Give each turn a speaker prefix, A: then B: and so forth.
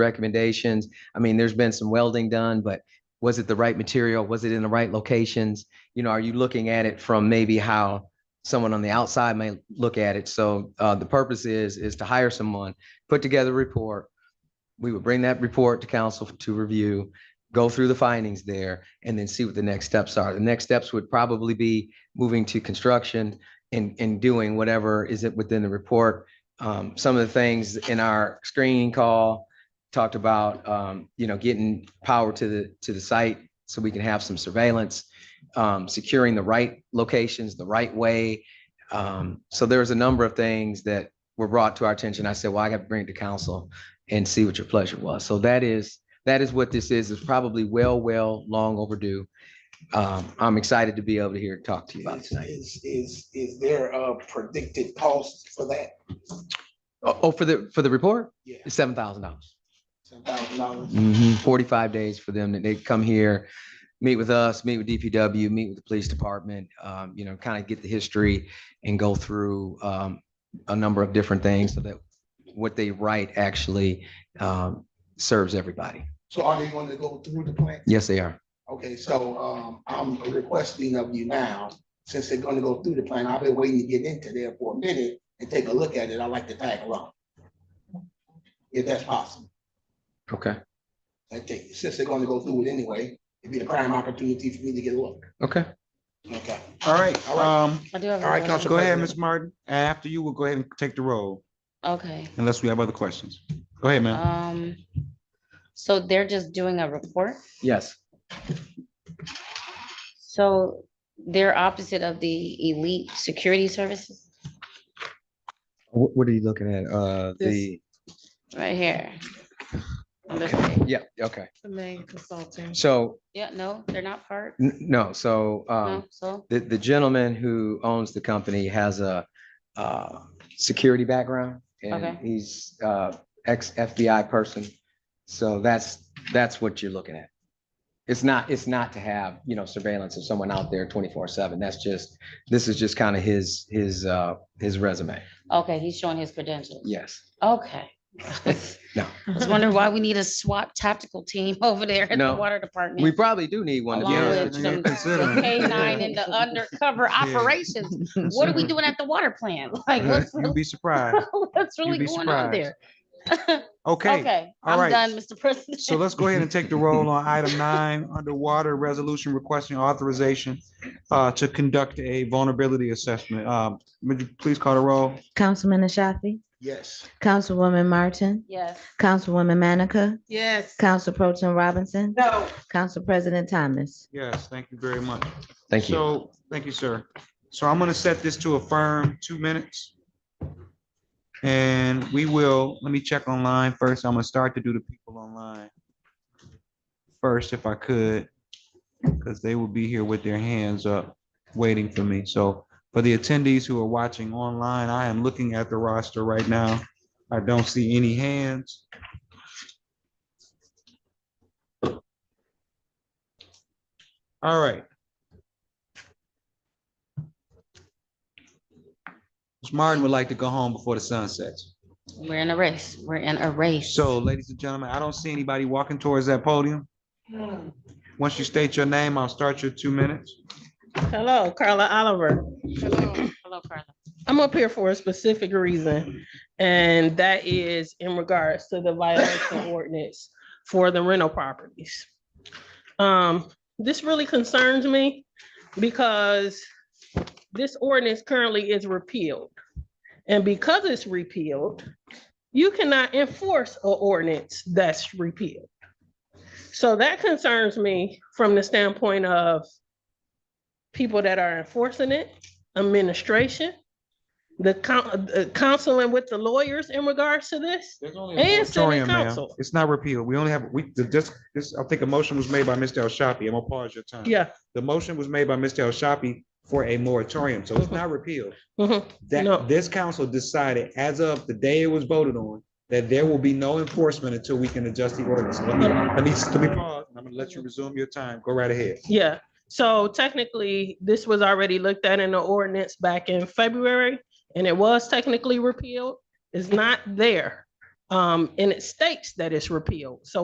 A: recommendations. I mean, there's been some welding done, but was it the right material? Was it in the right locations? You know, are you looking at it from maybe how someone on the outside may look at it? So uh, the purpose is, is to hire someone, put together a report. We would bring that report to council to review, go through the findings there, and then see what the next steps are. The next steps would probably be moving to construction and, and doing whatever is it within the report. Um, Some of the things in our screening call, talked about, um, you know, getting power to the, to the site so we can have some surveillance, um, securing the right locations, the right way. Um, so there's a number of things that were brought to our attention. I said, well, I got to bring it to council and see what your pleasure was. So that is, that is what this is. It's probably well, well, long overdue. Um, I'm excited to be able to hear, talk to you about it
B: Is,
A: tonight.
B: is, is, is there a predicted cost for that?
A: Oh, oh, for the, for the report,
B: Yeah.
A: it's seven thousand dollars.
B: Ten thousand dollars?
A: Mhm. Forty-five days for them, that they come here, meet with us, meet with DPW, meet with the police department, um, you know, kind of get the history and go through, um, a number of different things so that what they write actually, um, serves everybody.
B: So are they gonna go through the plan?
A: Yes, they are.
B: Okay, so, um, I'm requesting of you now, since they're gonna go through the plan, I've been waiting to get into there for a minute and take a look at it. I'd like to tag along. If that's possible.
A: Okay.
B: I take, since they're gonna go through it anyway, it'd be a prime opportunity for me to get a look.
A: Okay.
B: Okay.
C: All right,
B: All right.
C: um,
D: I do have.
B: All right,
D: one.
B: Council
C: go ahead,
B: President.
C: Ms. Martin. After you, we'll go ahead and take the roll
D: Okay,
C: unless we have other questions. Go ahead, ma'am.
D: um, so they're just doing a report,
A: Yes.
D: so they're opposite of the elite security services,
A: What, what are you looking at? Uh, the,
D: right here. On this page.
A: yeah, okay.
E: The main consulting.
A: So,
D: Yeah, no, they're not part,
A: n- no, so, um,
D: no, so,
A: the, the gentleman who owns the company has a, uh, security background. And
D: Okay.
A: he's, uh, ex FBI person. So that's, that's what you're looking at. It's not, it's not to have, you know, surveillance of someone out there twenty-four seven. That's just, this is just kind of his, his, uh, his resume.
D: okay, he's showing his credentials,
A: Yes.
D: okay. I
A: No.
D: was wondering why we need a SWAT tactical team over there at the
A: No.
D: water department.
A: We probably do need one. to be
D: Along
C: Yeah,
A: honest
D: with
A: with you.
C: yeah,
D: some
C: considering.
D: the K-9 and the undercover operations, what are we doing at the water plant? Like, what's,
C: You'd be surprised.
D: what's really
C: be
D: going on there?
C: Okay,
D: Okay,
C: all
D: I'm
C: right.
D: done, Mr. President.
C: so let's go ahead and take the roll on item nine, underwater resolution requesting authorization uh, to conduct a vulnerability assessment. Um, Would you please call the roll?
F: Councilman Ashafi,
B: Yes.
F: Councilwoman Martin,
D: Yes,
F: Councilwoman Manica,
E: Yes.
F: Council Pro Tim Robinson,
E: No.
F: Council President Thomas.
C: Yes, thank you very much.
A: Thank you.
C: So, thank you, sir. So I'm gonna set this to a firm two minutes. And we will, let me check online first. I'm gonna start to do the people online. First, if I could, because they will be here with their hands up, waiting for me. So for the attendees who are watching online, I am looking at the roster right now. I don't see any hands. All right. Ms. Martin would like to go home before the sun sets.
D: we're in a race. We're in a race.
C: So, ladies and gentlemen, I don't see anybody walking towards that podium. Once you state your name, I'll start your two minutes.
E: Hello, Carla Oliver.
D: Hello, Carla.
E: I'm up here for a specific reason, and that is in regards to the violation ordinance for the rental properties. Um, this really concerns me because this ordinance currently is repealed. And because it's repealed, you cannot enforce an ordinance that's repealed. So that concerns me from the standpoint of people that are enforcing it, administration, the coun- uh, counseling with the lawyers in regards to this? And city
C: Moratorium, ma'am.
E: council.
C: It's not repealed. We only have, we, the, this, this, I think a motion was made by Mr. El Shafi. I'm gonna pause your time.
E: Yeah.
C: The motion was made by Mr. El Shafi for a moratorium, so it's not repealed.
E: mhm. No.
C: That, this council decided as of the day it was voted on, that there will be no enforcement until we can adjust the ordinance. Let me, let me, let me pause. and I'm gonna let you resume your time. Go right ahead.
E: Yeah, so technically, this was already looked at in the ordinance back in February, and it was technically repealed. It's not there. Um, and it states that it's repealed. So